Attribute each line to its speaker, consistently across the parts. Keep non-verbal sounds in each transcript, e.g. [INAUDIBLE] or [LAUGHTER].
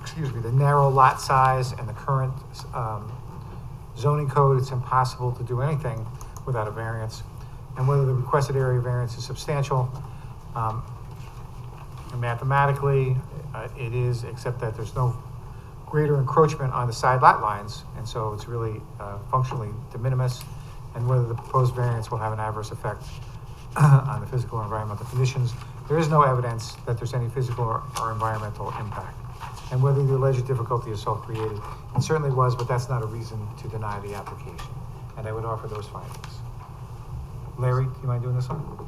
Speaker 1: excuse me, the narrow lot size and the current um, zoning code, it's impossible to do anything without a variance. And whether the requested area variance is substantial, um, and mathematically, uh, it is, except that there's no greater encroachment on the side lot lines, and so it's really uh, functionally de minimis, and whether the proposed variance will have an adverse effect [CLEARS THROAT] on the physical or environmental conditions. There is no evidence that there's any physical or or environmental impact. And whether the alleged difficulty is self-created, it certainly was, but that's not a reason to deny the application. And I would offer those findings. Larry, do you mind doing this one?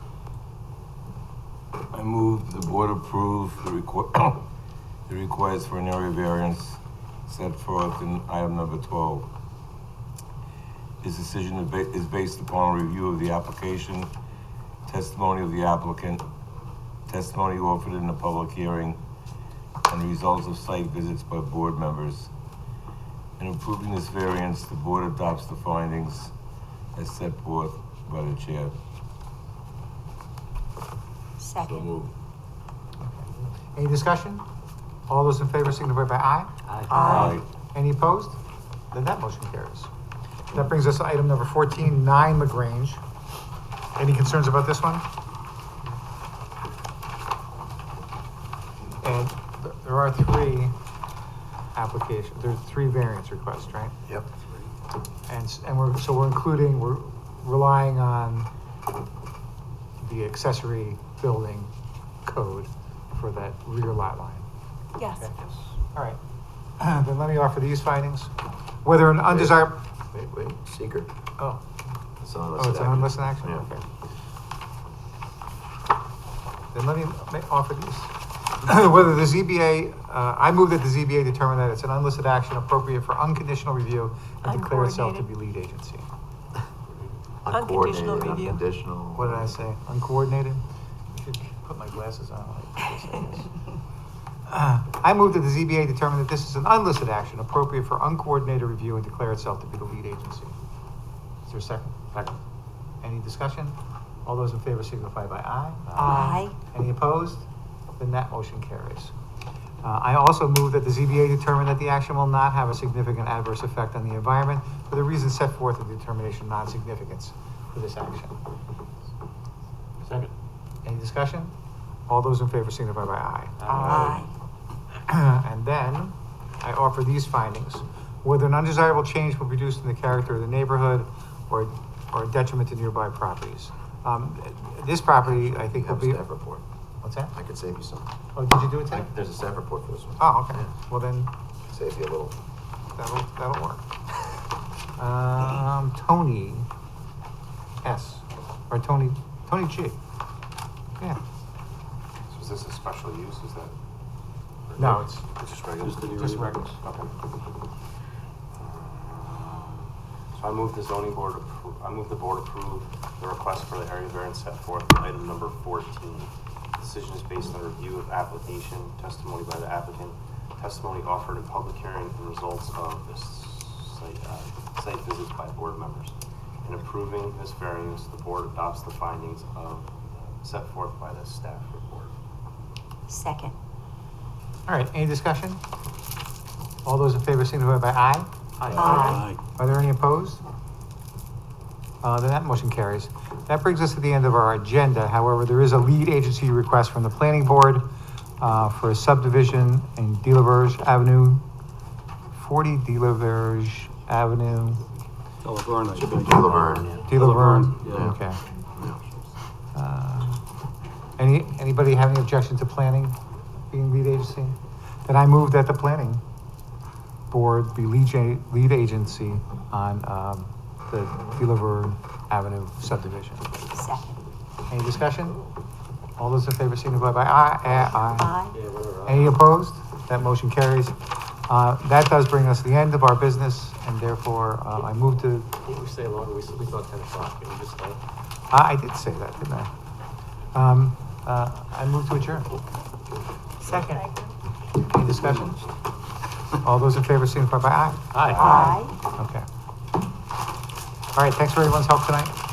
Speaker 2: I move the board approve the requ- [COUGHS] the request for an area variance set forth in item number twelve. This decision is ba- is based upon a review of the application, testimony of the applicant, testimony offered in the public hearing, and results of site visits by board members. In approving this variance, the board adopts the findings as set forth by the chair. So
Speaker 3: Second.
Speaker 2: moved.
Speaker 1: Any discussion? All those in favor signify by aye.
Speaker 2: Aye.
Speaker 1: Any opposed? Then that motion carries. That brings us to item number 14, 9 LaGrange. Any concerns about this one? And th- there are three applications, there's three variance requests, right?
Speaker 4: Yep.
Speaker 1: And, s- and we're, so we're including, we're relying on the accessory building code for that rear lot line.
Speaker 3: Yes.
Speaker 1: Okay. All right, [CLEARS THROAT] then let me offer these findings. Whether an undesired,
Speaker 4: Wait, wait, secret.
Speaker 1: oh,
Speaker 4: It's
Speaker 1: oh, it's an unlisted action,
Speaker 4: Yeah.
Speaker 1: okay. Then let me ma- offer these. [CLEARS THROAT] Whether the ZBA, uh, I move that the ZBA determine that it's an unlisted action appropriate for unconditional review and declare itself to be lead agency.
Speaker 3: Unconditional
Speaker 4: Uncoordinated,
Speaker 3: review.
Speaker 4: Unconditional.
Speaker 1: What did I say? Uncoordinated? Should Put my glasses on. like this, I guess. Uh, I move that the ZBA determine that this is an unlisted action appropriate for uncoordinated review and declare itself to be the lead agency. Is there a second? Second. Any discussion? All those in favor signify by aye.
Speaker 3: Aye.
Speaker 1: Any opposed? Then that motion carries. Uh, I also move that the ZBA determine that the action will not have a significant adverse effect on the environment for the reasons set forth in the determination of non-significance for this action.
Speaker 5: Second.
Speaker 1: Any discussion? All those in favor signify by aye.
Speaker 3: Aye.
Speaker 1: [CLEARS THROAT] And then I offer these findings. Whether an undesirable change will be produced in the character of the neighborhood or, or a detriment to nearby properties. Um, this property, I
Speaker 4: You
Speaker 1: think, will
Speaker 4: have
Speaker 1: be.
Speaker 4: a staff report.
Speaker 1: What's that?
Speaker 4: I could save you some.
Speaker 1: Oh, did you do it today?
Speaker 4: I- There's a staff report for this one.
Speaker 1: Oh, okay. Well, then
Speaker 4: Save you a little.
Speaker 1: that'll, that'll work. Um, Tony S, or Tony, Tony G. Yeah.
Speaker 6: So is this a special use, is that?
Speaker 1: No, it's-
Speaker 6: It's just regular?
Speaker 5: Just the new Just reg- regular.
Speaker 6: Okay. Uh, So I move the zoning board, appro- I move the board approve the request for the area variance set forth in item number fourteen. Decision is based on review of application, testimony by the applicant, testimony offered in public hearing, and results of this site, uh, site visits by board members. In approving this variance, the board adopts the findings of, set forth by the staff report.
Speaker 3: Second.
Speaker 1: All right, any discussion? All those in favor signify by aye.
Speaker 3: Aye.
Speaker 1: Are there any opposed? Uh, then that motion carries. That brings us to the end of our agenda. However, there is a lead agency request from the planning board uh, for a subdivision in Delaverge Avenue, 40 Delaverge Avenue,
Speaker 5: Oh, Laverne, I
Speaker 4: Should be
Speaker 5: think.
Speaker 4: Laverne,
Speaker 5: De Laverne,
Speaker 1: Delaverge?
Speaker 5: yeah.
Speaker 1: Okay. Uh, Any, anybody have any objection to planning being lead agency? Then I move that the planning board be lead, ja- lead agency on, um, the Deliver Avenue subdivision.
Speaker 3: Second.
Speaker 1: Any discussion? All those in favor signify by aye, aye, aye.
Speaker 3: Aye.
Speaker 1: Any opposed? That motion carries. Uh, that does bring us to the end of our business, and therefore, uh, I move to,
Speaker 5: Didn't we say longer? We, s- we thought ten o'clock. Can we just start?
Speaker 1: I, I did say that, didn't I? Um, uh, I move to adjourn.
Speaker 3: Second.
Speaker 1: Any discussion? All those in favor signify by aye.
Speaker 5: Aye.
Speaker 3: Aye.
Speaker 1: Okay. All right, thanks for everyone's help tonight.